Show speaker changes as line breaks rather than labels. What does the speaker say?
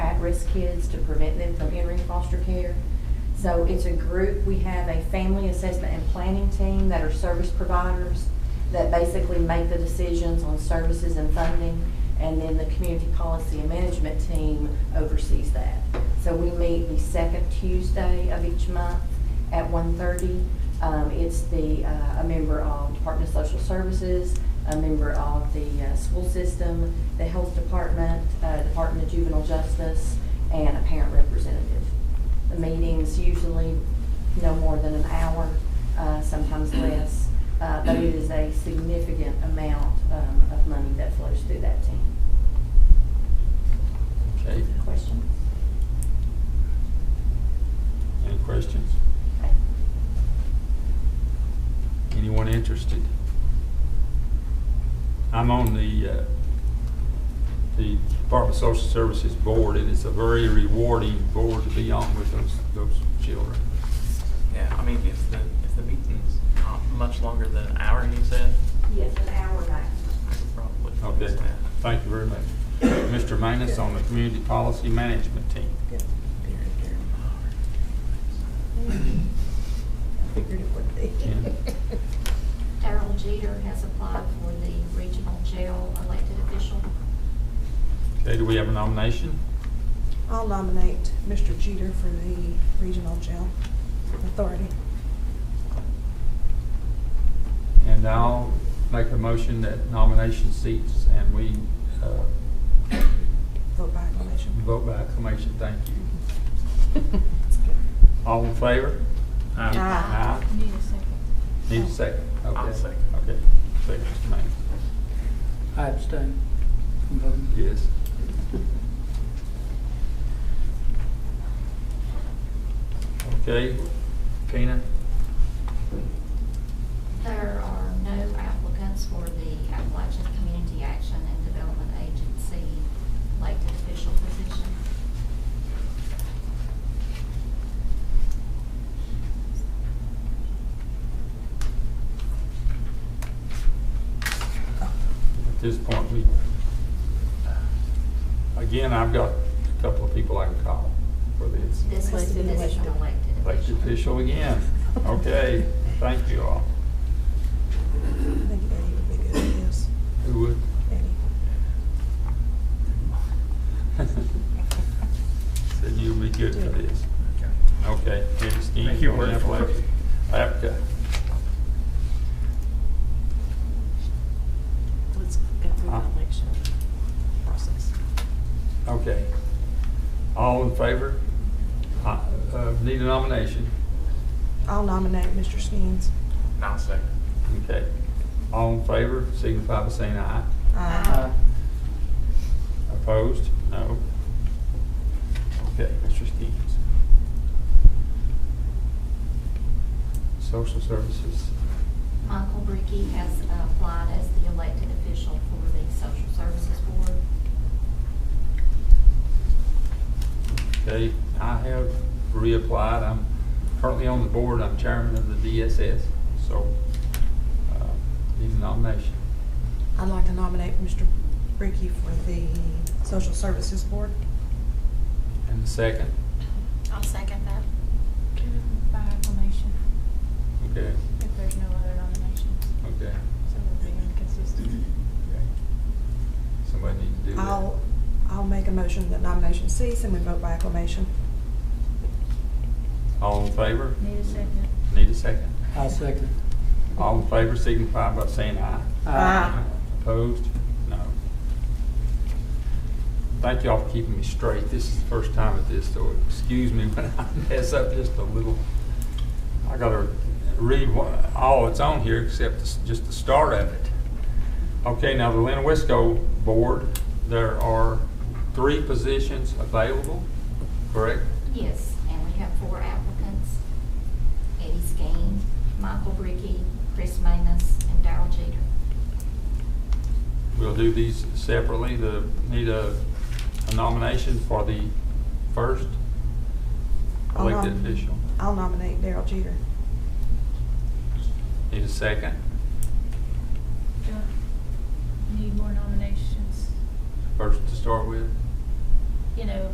at-risk kids to prevent them from entering foster care. So it's a group, we have a family assessment and planning team that are service providers that basically make the decisions on services and funding, and then the community policy and management team oversees that. So we meet the second Tuesday of each month at 1:30. Um, It's the, uh, a member of Department of Social Services, a member of the uh, school system, the health department, uh, Department of Juvenile Justice, and a parent representative. The meeting's usually no more than an hour, uh, sometimes less, uh, but it is a significant amount um, of money that flows through that team.
Okay,
Questions?
any questions?
Okay.
Anyone interested? I'm on the, uh, the Department of Social Services Board, and it's a very rewarding board to be on with those, those children.
Yeah, I mean, if the, if the meeting's not much longer than an hour, you said,
Yes, an hour back.
I could probably.
Okay,
Yeah.
thank you very much. Mr. Manus on the Community Policy Management Team.
Dear, dear Lord.
Figured it would be.
Yeah.
Darrell Jeter has applied for the regional jail elected official.
Okay, do we have a nomination?
I'll nominate Mr. Jeter for the Regional Jail Authority.
And I'll make a motion that nomination cease and we uh,
Vote by acclamation.
vote by acclamation. Thank you. All in favor?
Aye.
Aye.
Need a second.
Need a second? Okay.
I'll second.
Okay. Second, Mr. Manning.
I abstain from voting.
Yes. Okay, Tina?
There are no applicants for the Appalachian Community Action and Development Agency elected official position.
At this point, we, again, I've got a couple of people I can call for this.
This is,
Elected
this is an
official.
elected
Elected official
official.
again. Okay, thank you all.
I think Eddie would be good at this.
Who would?
Eddie.
Said you'd be good for this. Okay, Eddie Steen.
Thank you, Warren.
Appalachia. Apca.
Let's go through
Huh?
the election process.
Okay. All in favor? Uh, uh, Need a nomination?
I'll nominate Mr. Skeens.
And I'll second.
Okay. All in favor, signify by saying aye.
Aye.
Opposed? No. Okay, Mr. Skeens. Social Services.
Michael Bricky has applied as the elected official for the Social Services Board.
Okay, I have reapplied. I'm currently on the board. I'm chairman of the DSS, so uh, need a nomination.
I'd like to nominate Mr. Bricky for the Social Services Board.
And the second,
I'll second that.
By acclamation,
okay,
if there's no other nominations,
okay.
so we're being inconsistent.
okay. Somebody need to do that.
I'll, I'll make a motion that nomination cease and we vote by acclamation.
All in favor?
Need a second.
Need a second.
I second.
All in favor signify by saying aye.
Aye.
Opposed? No. Thank y'all for keeping me straight. This is the first time at this, so excuse me when I mess up just a little. I gotta read what- all that's on here except the s- just the start of it. Okay, now the Lena Wisco Board, there are three positions available, correct?
Yes, and we have four applicants. Eddie Skeen, Michael Bricky, Chris Manus, and Darrell Jeter.
We'll do these separately. The, need a a nomination for the first
I'll nom-
elected official.
I'll nominate Daryl Jeter.
Need a second.
Do I Need more nominations,
First to start with.
you know,